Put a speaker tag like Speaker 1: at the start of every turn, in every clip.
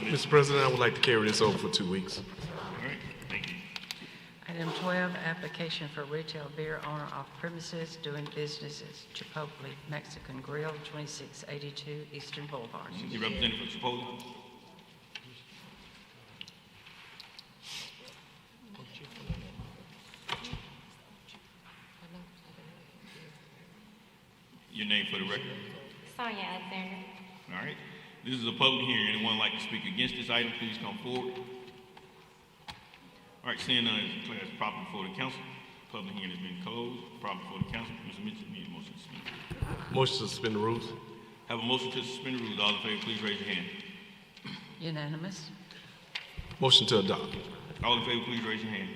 Speaker 1: Mr. President, I would like to carry this over for two weeks.
Speaker 2: All right, thank you.
Speaker 3: Item 12, application for retail beer owner off premises doing business as Chipotle Mexican Grill, 2682 Eastern Boulevard.
Speaker 2: The representative for Chipotle. Your name for the record.
Speaker 4: Sonia Alexander.
Speaker 2: All right. This is a public hearing. Anyone like to speak against this item, please come forward. All right, seeing none, it's declared as proper before the council. Public hearing has been closed. Proper before the council. Mr. Mitchell, need a motion to suspend.
Speaker 1: Motion to suspend the rules.
Speaker 2: Have a motion to suspend the rules. All in favor, please raise your hand.
Speaker 3: Unanimous?
Speaker 1: Motion to adopt.
Speaker 2: All in favor, please raise your hand.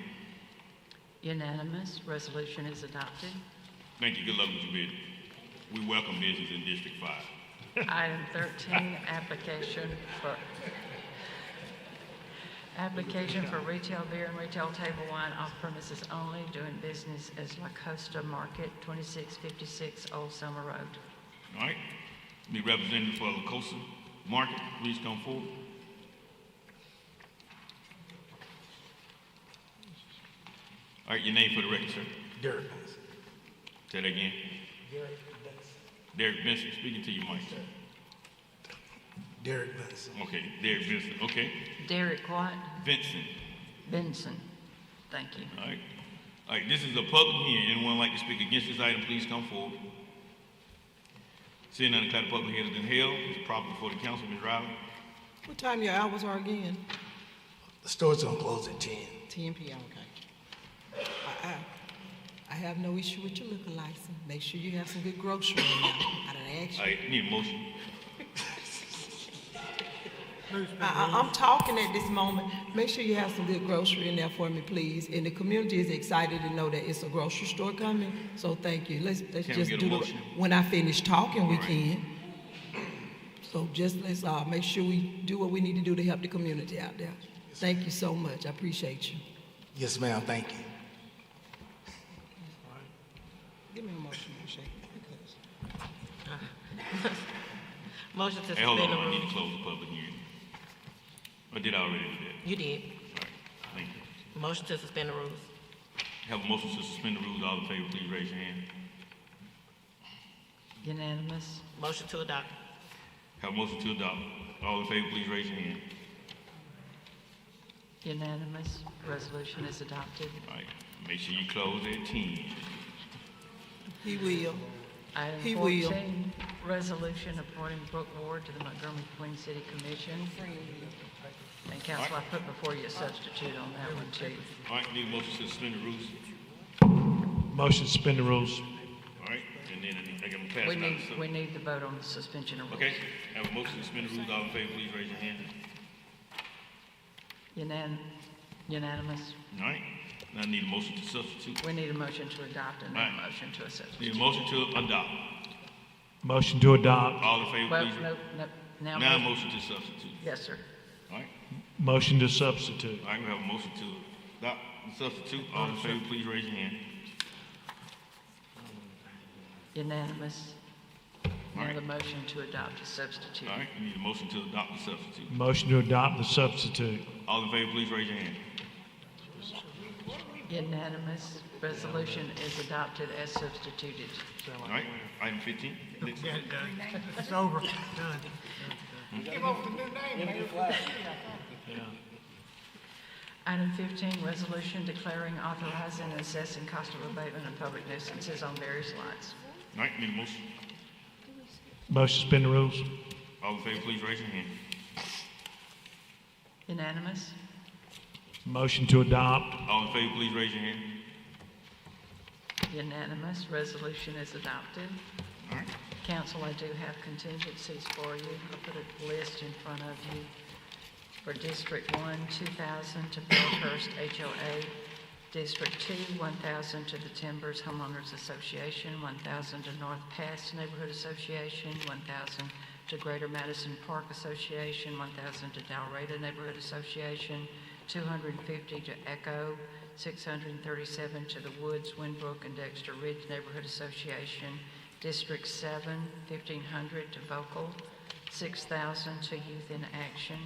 Speaker 3: Unanimous. Resolution is adopted.
Speaker 2: Thank you. Good luck with your bid. We welcome business in District Five.
Speaker 3: Item 13, application for, application for retail beer and retail table wine off premises only, doing business as La Costa Market, 2656 Old Summer Road.
Speaker 2: All right? The representative for La Cosa Market, please come forward. All right, your name for the record, sir.
Speaker 5: Derek.
Speaker 2: Say that again.
Speaker 5: Derek Benson.
Speaker 2: Derek Benson, speaking to you, Mike.
Speaker 5: Derek Benson.
Speaker 2: Okay, Derek Benson, okay.
Speaker 3: Derek White
Speaker 2: Vincent,
Speaker 3: Benson. Thank you.
Speaker 2: all right. All right, this is a public hearing. Anyone like to speak against this item, please come forward. Seeing none, declare the public hearing has been held. It's proper before the council, Ms. Riley.
Speaker 6: What time your hours are again?
Speaker 5: The store's gonna close at ten.
Speaker 6: Ten PM, okay. I, I, I have no issue with your liquor license. Make sure you have some good groceries. I done asked
Speaker 2: All
Speaker 6: you.
Speaker 2: right, need a motion.
Speaker 6: I, I, I'm talking at this moment. Make sure you have some good grocery in there for me, please. And the community is excited to know that it's a grocery store coming, so thank you. Let's, let's
Speaker 2: Can we
Speaker 6: just
Speaker 2: get a
Speaker 6: do the,
Speaker 2: motion?
Speaker 6: when I finish talking, we
Speaker 2: All right.
Speaker 6: can. So just let's, uh, make sure we do what we need to do to help the community out there. Thank you so much. I appreciate you.
Speaker 5: Yes, ma'am, thank you.
Speaker 6: Give me a motion, Shake. because-
Speaker 7: Motion to
Speaker 2: Hey, hold on,
Speaker 7: suspend the
Speaker 2: I need to
Speaker 7: rules.
Speaker 2: close the public hearing. I did I already do that.
Speaker 7: You did.
Speaker 2: All right, thank you.
Speaker 7: Motion to suspend the rules.
Speaker 2: Have a motion to suspend the rules, all in favor, please raise your hand.
Speaker 3: Unanimous.
Speaker 7: Motion to adopt.
Speaker 2: Have a motion to adopt, all in favor, please raise your hand.
Speaker 3: Unanimous. Resolution is adopted.
Speaker 2: All right, make sure you close at ten.
Speaker 6: He will.
Speaker 3: Item
Speaker 6: He will.
Speaker 3: 14, resolution appointing Brooke Ward to the Montgomery Queen City Commission. And council, I put before you a substitute on that one too.
Speaker 2: All right, need a motion to suspend the rules,
Speaker 8: Motion to suspend the rules.
Speaker 2: all right, and then I think I'm gonna pass
Speaker 3: We
Speaker 2: it out.
Speaker 3: need,
Speaker 2: to some-
Speaker 3: we need the vote on the suspension of rules.
Speaker 2: Okay, have a motion to suspend the rules, all in favor, please raise your hand.
Speaker 3: Unan- Unanimous.
Speaker 2: All right, now I need a motion to substitute,
Speaker 3: We need a motion to adopt and then a
Speaker 2: Right.
Speaker 3: motion to a
Speaker 2: need a
Speaker 3: substitute.
Speaker 2: motion to adopt,
Speaker 8: Motion to adopt.
Speaker 2: all in favor,
Speaker 3: Well,
Speaker 2: please.
Speaker 3: no, no,
Speaker 2: Now, a
Speaker 3: now,
Speaker 2: motion to substitute,
Speaker 3: yes, sir.
Speaker 2: all right?
Speaker 8: Motion to substitute.
Speaker 2: All right, we have a motion to adopt and substitute. All in favor, please raise your hand.
Speaker 3: Unanimous. Now
Speaker 2: Right.
Speaker 3: the motion to adopt a substitute.
Speaker 2: All right, we need a motion to adopt the substitute.
Speaker 8: Motion to adopt the substitute.
Speaker 2: All in favor, please raise your hand.
Speaker 3: Unanimous. Resolution is adopted as substituted.
Speaker 2: All right, item fifteen. Next.
Speaker 9: It's over. Done.
Speaker 3: Item 15, resolution declaring, authorizing, and assessing cost of abatement of public nuisances on various lots.
Speaker 2: All right, need a motion.
Speaker 8: Motion to suspend the rules.
Speaker 2: All in favor, please raise your hand.
Speaker 3: Unanimous?
Speaker 8: Motion to adopt.
Speaker 2: All in favor, please raise your hand.
Speaker 3: Unanimous. Resolution is adopted.
Speaker 2: All right,
Speaker 3: Council, I do have contingencies for you. I put a list in front of you for District 1, 2,000 to Bellhurst HOA, District 2, 1,000 to the Timbers Homeowners Association, 1,000 to North Pass Neighborhood Association, 1,000 to Greater Madison Park Association, 1,000 to Dalreda Neighborhood Association, 250 to Echo, 637 to the Woods, Winbrook, and Dexter Ridge Neighborhood Association, District 7, 1,500 to Vocal, 6,000 to Youth in Action,